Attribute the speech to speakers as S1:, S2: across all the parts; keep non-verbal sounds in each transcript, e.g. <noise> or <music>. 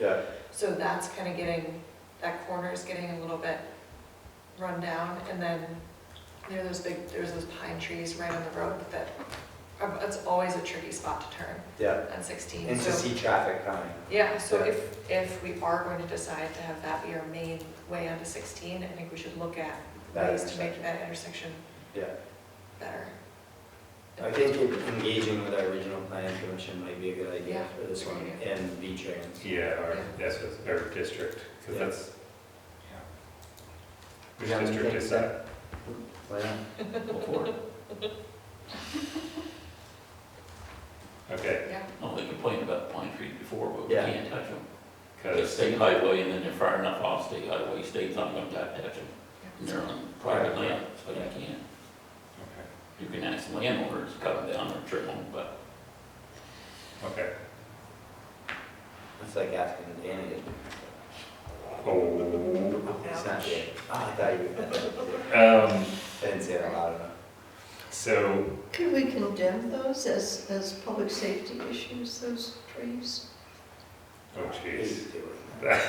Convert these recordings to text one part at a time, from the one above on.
S1: Yeah,
S2: So that's kind of getting, that corner is getting a little bit run down. And then there are those big, there's those pine trees right on the road that, are- it's always a tricky spot to turn
S1: yeah,
S2: on 16.
S1: and to
S2: So-
S1: see traffic coming.
S2: Yeah, so
S1: Yeah.
S2: if, if we are going to decide to have that be our main way onto 16, I think we should look at
S1: That
S2: ways to make that intersection
S1: Yeah.
S2: better.
S1: I think engaging with our regional planning commission might be a good idea
S2: Yeah.
S1: for this one, and V-Trans.
S3: Yeah, or, that's what, or district, because
S1: Yeah.
S3: that's, which
S1: You have
S3: district
S1: anything
S3: is
S1: to say?
S3: that?
S1: Why not?
S4: Go for it.
S3: Okay,
S2: Yeah,
S4: No, Oh, they complained about pine trees before, but we
S1: Yeah.
S4: can't touch them. It's
S3: because,
S4: state highway, and then they're far enough off state highway, state's not gonna touch them. And They're on private
S1: Right.
S4: land, so you can't.
S3: okay,
S4: You can ask landowners to cut them down or trim them, but
S3: okay.
S1: It's like asking Danny. to-
S3: Oh,
S1: It's not Danny. Oh, I thought you meant that.
S3: um,
S1: I Didn't say it loud enough.
S3: so,
S5: Could we condemn those as, as public safety issues, those trees?
S3: oh jeez,
S1: He's doing that.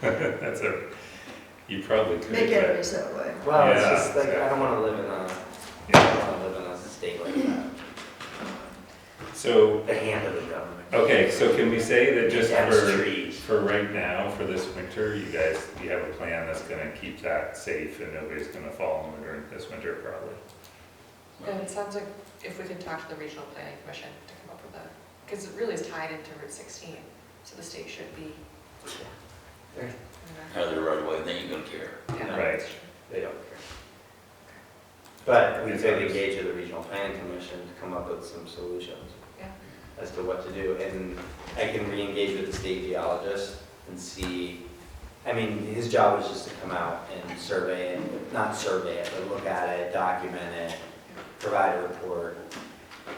S3: <laughs> that's a, you probably could,
S5: Make
S3: but,
S5: enemies that way.
S1: Well, it's
S3: Yeah,
S1: just like, I don't wanna live in a, I
S3: yeah.
S1: don't wanna live in a state like that.
S3: So,
S1: The hand of the government.
S3: okay, so can we say that just
S1: That's
S3: for,
S1: trees.
S3: for right now, for this winter, you guys, you have a plan that's gonna keep that safe and nobody's gonna fall in the drink this winter probably?
S2: and it sounds like if we could talk to the regional planning commission to come up with that, because it really is tied into Route 16, so the state should be.
S1: They're-
S2: I
S4: out of the right away, then you don't care.
S2: don't know. Yeah.
S3: Right.
S1: They don't care. But we
S3: It's
S1: could
S3: obvious.
S1: engage with the regional planning commission to come up with some solutions.
S2: Yeah.
S1: As to what to do, and I can re-engage with the state geologist and see, I mean, his job is just to come out and survey it, not survey it, but look at it, document it, provide a report.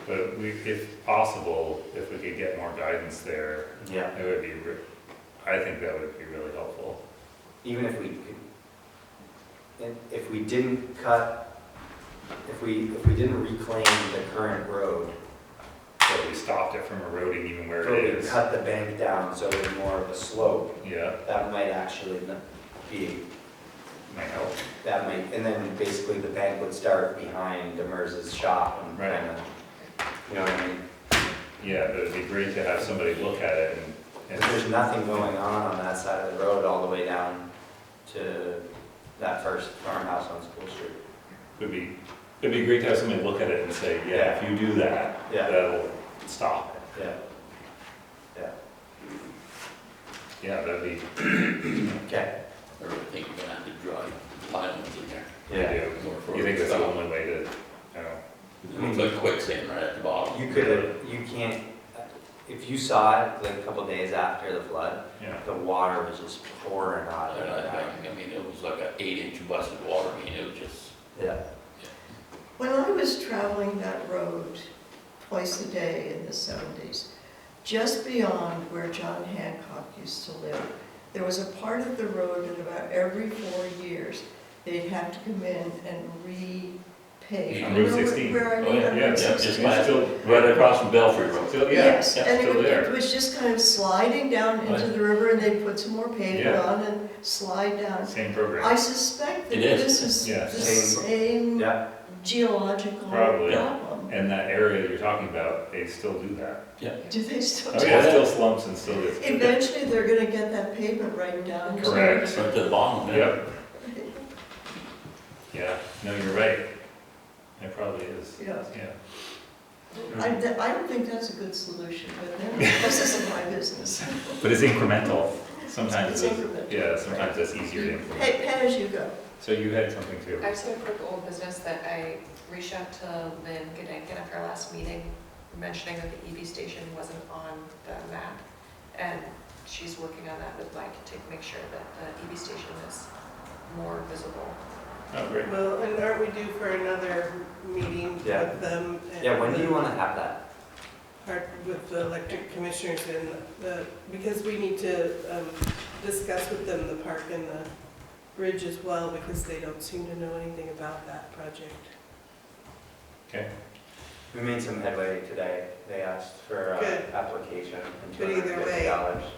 S3: But we, if possible, if we could get more guidance there,
S1: Yeah.
S3: It would be, re- I think that would be really helpful.
S1: even if we, and if we didn't cut, if we, if we didn't reclaim the current road,
S3: But we stopped it from eroding even where
S1: or
S3: it
S1: we
S3: is.
S1: cut the bank down so it's more of a slope,
S3: Yeah,
S1: that might actually n- be,
S3: might help.
S1: that might, and then basically the bank would start behind Demers' shop and
S3: Right.
S1: kind of, you know what I mean?
S3: Yeah, but it'd be great to have somebody look at it and,
S1: If there's
S3: and,
S1: nothing going on on that side of the road all the way down to that first farmhouse on School Street.
S3: it'd be, it'd be great to have somebody look at it and say, yeah, if you do that,
S1: Yeah.
S3: that'll stop it.
S1: Yeah. Yeah,
S3: Yeah, that'd be,
S1: okay.
S4: Or I think you're gonna have to drive pylons in there.
S3: I do. You think that's the only way to, you know,
S4: It looks like quicksand right at the bottom.
S1: You could, you can't, if you saw it like a couple days after the flood,
S3: yeah,
S1: the water was just pouring out of
S4: And
S1: it.
S4: I think, I mean, it was like an eight inch bust of water, I mean, it was just,
S1: Yeah,
S5: When I was traveling that road twice a day in the seventies, just beyond where John Hancock used to live, there was a part of the road that about every four years, they'd have to come in and repave.
S4: On
S3: Route
S5: You know where-
S3: 16.
S5: Where I
S4: oh,
S5: live
S4: yeah,
S5: on
S3: yeah,
S4: yeah,
S5: Route
S3: yeah,
S4: just
S5: 16.
S4: last,
S3: still-
S4: right across from Belfry Road.
S3: still, Oh, yeah,
S5: Yes,
S3: it's
S5: and it
S3: still
S5: would- it
S3: there.
S5: was just kind of sliding down into the river, and they'd put some more pavement
S3: Yeah.
S5: on and slide down.
S3: Same
S5: I
S3: program,
S5: suspect that
S4: It is.
S5: this is
S3: Yeah,
S5: the
S1: same-
S5: same
S1: yeah,
S5: geological
S3: Probably.
S5: problem.
S3: and that area you're talking about, they still do that.
S5: Do they still,
S3: Oh, yeah, it still slumps and still gets.
S5: eventually they're gonna get that pavement right down. to-
S3: Correct.
S4: Right to the bottom, yeah.
S3: Yep. Yeah, no, you're right. It probably is,
S5: Yeah,
S3: yeah.
S5: I, th- I don't think that's a good solution, but then, this isn't my business.
S3: But it's incremental. Sometimes
S5: It's
S3: it's,
S5: incremental.
S3: yeah, sometimes it's easier to
S5: Pay,
S3: implement.
S5: pay as you go.
S3: So you had something too?
S2: I just have a quick old business that I reached out to Lynn Gedanken after our last meeting, mentioning that the EV station wasn't on the map. And she's working on that with Mike to make sure that the EV station is more visible.
S3: Oh, great.
S6: Well, and aren't we due for another meeting
S1: Yeah.
S6: with them? and-
S1: yeah, when do you wanna have that?
S6: Part With the electric commissioners and the, because we need to um, discuss with them the park and the bridge as well, because they don't seem to know anything about that project.
S1: We made some headway today, they asked for uh,
S6: Good.
S1: application and two
S6: But
S1: hundred
S6: either
S1: uh, and fifty
S6: way-
S1: dollars.